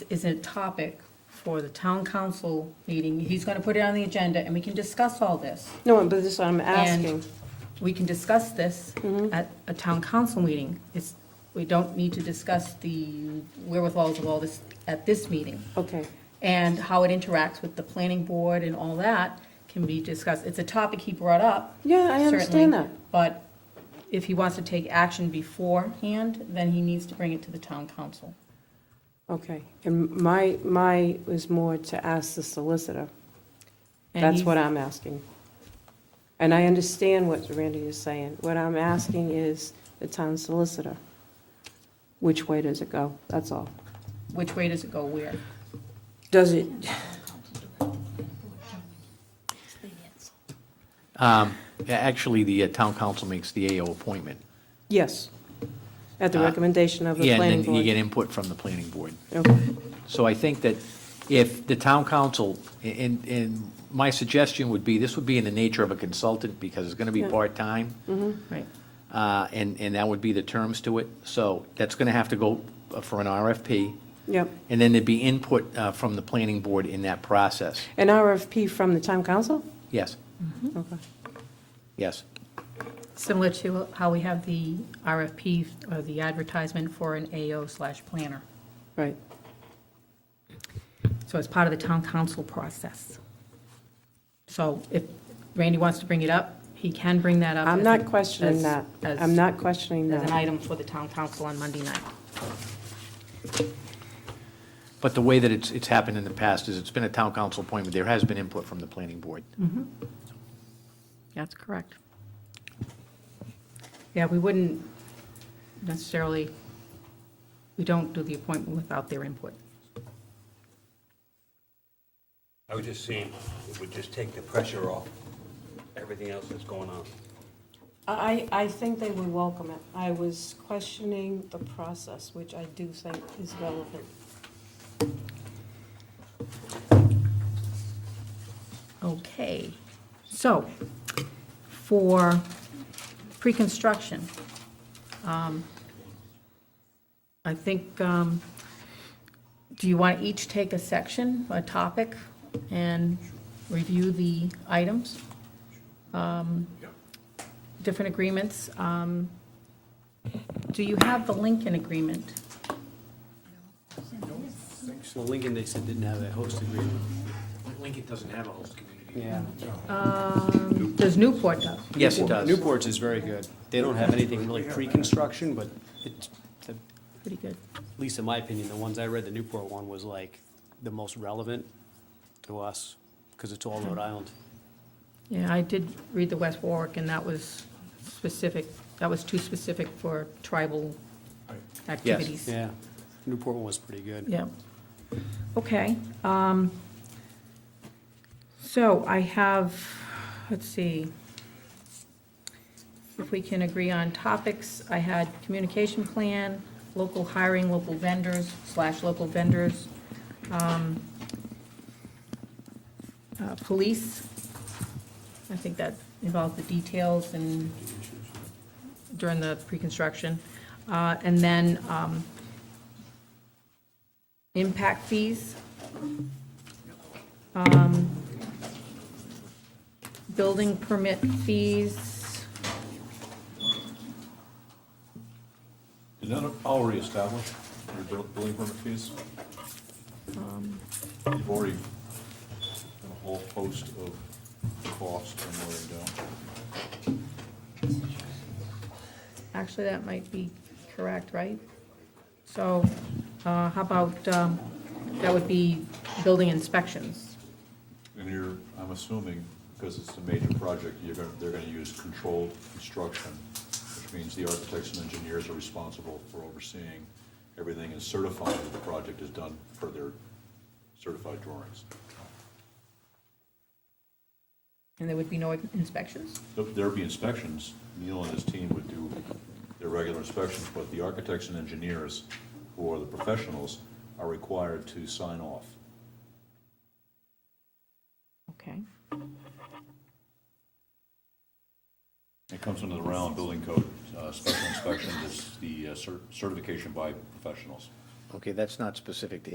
is a topic for the town council meeting. He's gonna put it on the agenda, and we can discuss all this. No, but this I'm asking. Mm-hmm. And we can discuss this at a town council meeting. It's, we don't need to discuss the wherewithals of all this at this meeting. Okay, And how it interacts with the planning board and all that can be discussed. It's a topic he brought up. yeah, I understand certainly, that. But if he wants to take action beforehand, then he needs to bring it to the town council. Okay, and my, my was more to ask the solicitor. And That's he's- what I'm asking. And I understand what Randy is saying. What I'm asking is the town solicitor. Which way does it go? That's all. Which way does it go where? Does it, Um, a- Actually, the uh, town council makes the AO appointment. yes, at the Uh, recommendation of the Yeah, planning and then you get board. input from the planning board. Okay, So I think that if the town council, and, and my suggestion would be, this would be in the nature of a consultant, because it's gonna be Yeah. Mm-hmm. part-time, Right. uh, and, and that would be the terms to it. So that's gonna have to go uh, for an RFP, Yep, and then there'd be input uh, from the planning board in that process. an RFP from the town council? Yes, Mm-hmm. Okay. yes. Similar to how we have the RFP or the advertisement for an AO slash planner. Right, So it's part of the town council process. So if Randy wants to bring it up, he can bring that up. I'm as not a- questioning as- that. as- I'm not questioning As an that. item for the town council on Monday night. But the way that it's, it's happened in the past is it's been a town council appointment, there has been input from the planning board. That's correct. Yeah, we wouldn't necessarily, we don't do the appointment without their input. I was just seeing, it would just take the pressure off everything else that's going on. I, I think they would welcome it. I was questioning the process, which I do think is relevant. Okay, so for pre-construction, um, I think, um, do you want to each take a section, a topic, and review the items? Um, Different agreements. um, Do you have the Lincoln agreement? So Lincoln, they said, didn't have a host agreement. Lincoln doesn't have a host community. Yeah. Um, Does Newport does? Yes, it does. Newport's is very good. They don't have anything really pre-construction, but it, the- Pretty good. at least in my opinion, the ones I read, the Newport one was like the most relevant to us, because it's all Rhode Island. Yeah, I did read the West Warwick, and that was specific, that was too specific for tribal activities. Yeah, Newport one was pretty good. Yeah. Okay. um, So I have, let's see, if we can agree on topics, I had communication plan, local hiring, local vendors, slash local vendors, um, uh, police. I think that involves the details and during the pre-construction. Uh, And then um, impact fees. um, Building permit fees, Is that all reestablished, your bill- building permit fees? You've already done a whole host of costs and what they're doing. actually, that might be correct, right? So uh, how about, um, that would be building inspections. And you're, I'm assuming, because it's a major project, you're gonna, they're gonna use controlled construction, which means the architects and engineers are responsible for overseeing everything and certifying that the project is done per their certified drawings. And there would be no inspections? Th- There'd be inspections, Neil and his team would do their regular inspections, but the architects and engineers, who are the professionals, are required to sign off. Okay. It comes under the Rhode Island Building Code, uh, special inspection is the uh, cer- certification by professionals. Okay, that's not specific to